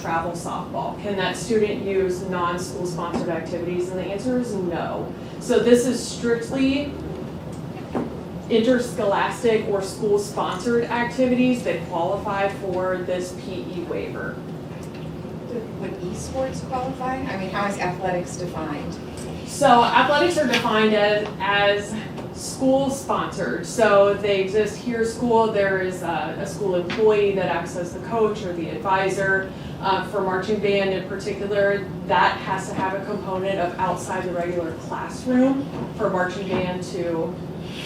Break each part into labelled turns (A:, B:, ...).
A: travel softball? Can that student use non-school sponsored activities? And the answer is no. So this is strictly interscholastic or school sponsored activities that qualify for this PE waiver.
B: Would esports qualify? I mean, how is athletics defined?
A: So athletics are defined as, as school sponsored. So they exist here, school, there is a, a school employee that acts as the coach or the advisor. Uh, for marching band in particular, that has to have a component of outside the regular classroom for marching band to,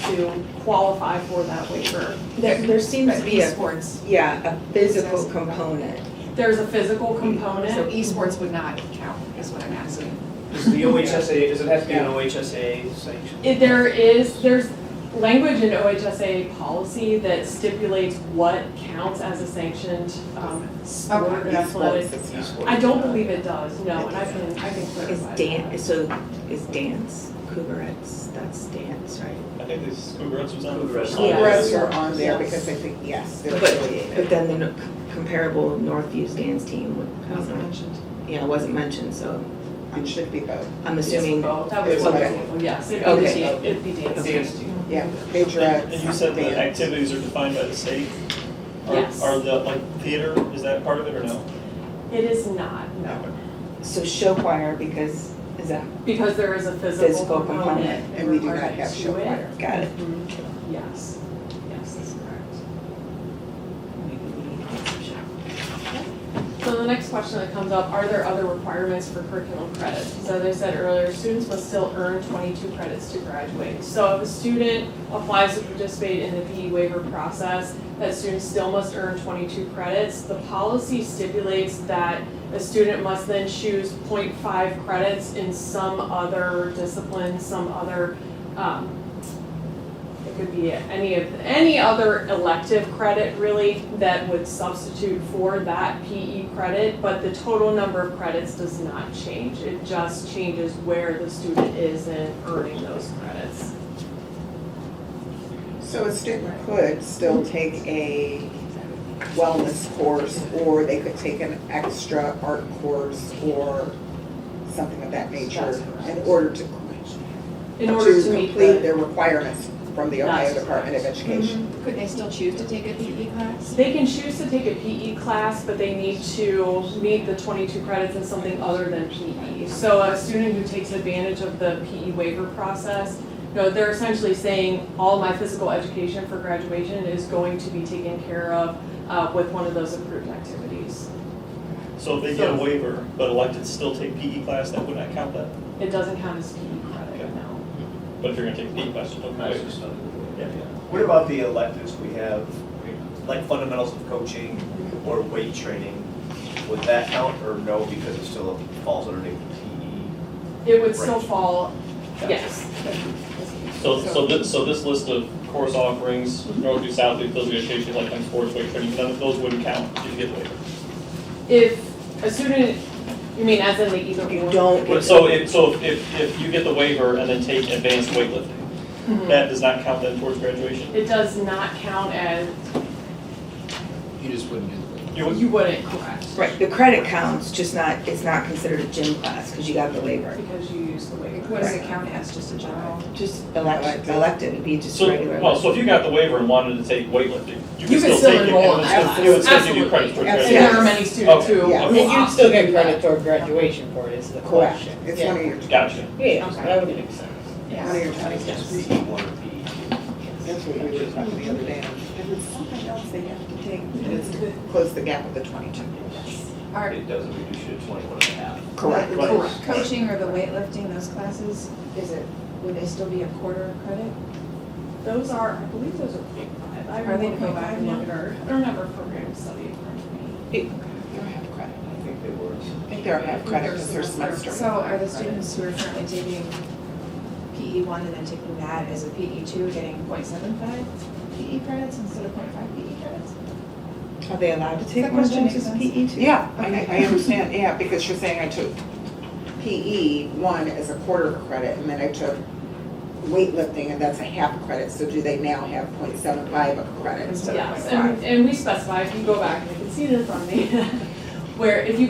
A: to qualify for that waiver.
C: There, there seems to
B: But
C: be a,
B: Esports,
C: yeah, a physical component.
A: There's a physical
B: so
A: component.
B: esports would not count, is what I'm asking.
D: Is the OHSA, does it have to be an OHSA sanction?
A: If there is, there's language in OHSA policy that stipulates what counts as a sanctioned, um, sport or athletic I don't believe it does, no, and I can, I can
C: Is
A: clarify.
C: dan, so is dance, Cougarettes, that's dance, right?
E: I think this Cougarettes was on the
D: Cougarettes.
E: first
C: Yeah.
E: line.
F: Reds are on there because I think, yes. they're
C: But,
F: really-
C: but then the no- comparable Northview's dance team, would- I don't know. yeah, it wasn't mentioned, so
F: It should be both,
C: I'm assuming.
A: That was one
F: Okay.
A: example, yes, it'd be,
C: Okay.
A: dan- it'd be dancing.
D: Dance team.
F: yeah, majorettes.
E: And and you said the
F: bands.
E: activities are defined by the state? Are-
A: Yes.
E: Are the, like, theater, is that part of it or no?
A: It is not, no,
C: So show choir because, is that,
A: because there is a physical
C: Physical
A: component
C: component,
F: And we do not have show
A: to it.
F: choir.
C: got it.
A: Mhm. Yes, yes, that's correct.
C: Maybe we need to get some show.
A: So the next question that comes up, are there other requirements for curriculum credit? So as I said earlier, students must still earn twenty-two credits to graduate. So if a student applies to participate in the PE waiver process, that student still must earn twenty-two credits. The policy stipulates that a student must then choose 0.5 credits in some other discipline, some other, um, it could be any of, any other elective credit really that would substitute for that PE credit, but the total number of credits does not change. It just changes where the student is in earning those credits.
F: So a student could still take a wellness course, or they could take an extra art course, or something of that
A: That's
F: nature,
A: correct.
F: in order to,
A: In order
F: to
A: to meet
F: complete
A: the,
F: their requirements from the Ohio
A: That's
F: Department of Education.
B: Could they still choose to take a PE class?
A: they can choose to take a PE class, but they need to meet the twenty-two credits in something other than PE. So a student who takes advantage of the PE waiver process, you know, they're essentially saying, all my physical education for graduation is going to be taken care of uh, with one of those approved activities.
E: So if they get a waiver, but elected to still take PE class, that would not count that?
A: It doesn't count as PE credit now.
E: But if you're gonna take PE class, you don't waiver. Yeah,
D: What about the electives we have, like fundamentals of coaching or weight training? Would that count or no, because it still falls underneath PE?
A: It would still
D: Right.
A: fall, yes.
E: yeah. So, so this, so this list of course offerings, Northview, Southview, those negotiations, like, on sports, weight training, none of those wouldn't count if you get a waiver.
A: If a student, you mean as in the either
C: You
A: or?
C: don't
E: But
C: get.
E: so if, so if, if you get the waiver and then take advanced weightlifting,
A: Mhm.
E: that does not count then towards graduation?
A: It does not count as,
G: You just wouldn't get
E: You would-
A: you wouldn't, correct?
C: Right, the credit counts, just not, it's not considered a gym class because you got the waiver.
A: Because you use the waiver.
B: What does it count as, just a general?
C: Just elected, elected, it'd be just
E: So,
C: regular.
E: well, so if you got the waiver and wanted to take weightlifting,
A: You
E: you could
A: could
E: still
A: still
E: take it,
A: enroll
E: and
A: in
E: it's
A: that
E: gonna-
A: class.
E: it would still give you credit
A: Absolutely.
E: towards
A: And
E: graduation.
F: Yes.
A: there are many students who.
F: Yeah.
H: I mean, you'd still get credit toward graduation for it, is the
A: Mm-hmm.
F: Correct,
H: question.
F: it's
H: Yeah.
F: one of your,
E: Gotcha.
H: Yeah,
A: Okay.
H: that would make sense.
F: one of your twenty
D: Yes. PE one or E. PE
F: That's what we were talking the other day. If it's something else they have to take, then it's to close the gap with the twenty-two.
B: Are
D: two? It doesn't reduce you to twenty-one and a half.
F: Correct.
B: the
E: Right.
B: coach- coaching or the weightlifting, those classes, is it, would they still be a quarter credit?
A: Those are, I believe those are point five. I
B: Are they
A: remember-
B: point five?
A: I remember, I remember program study in front of me.
F: They're half credit.
D: I think they were.
F: I think they're half credit because they're semester.
B: So are the students who are currently taking PE one and then taking that as a PE two, getting 0.75 PE E credits instead of 0.5 PE E credits?
C: Are they allowed to take
B: That
C: one of
B: question
C: those
B: makes
C: as
B: sense.
C: PE too?
F: Yeah, I, I understand, yeah, because you're saying I took PE one as a quarter of a credit, and then I took weightlifting, and that's a half credit, so do they now have 0.75 of a credit instead of
A: Yes,
F: 0.5?
A: and, and we specify, if you go back, and you can see it in front of me, where if you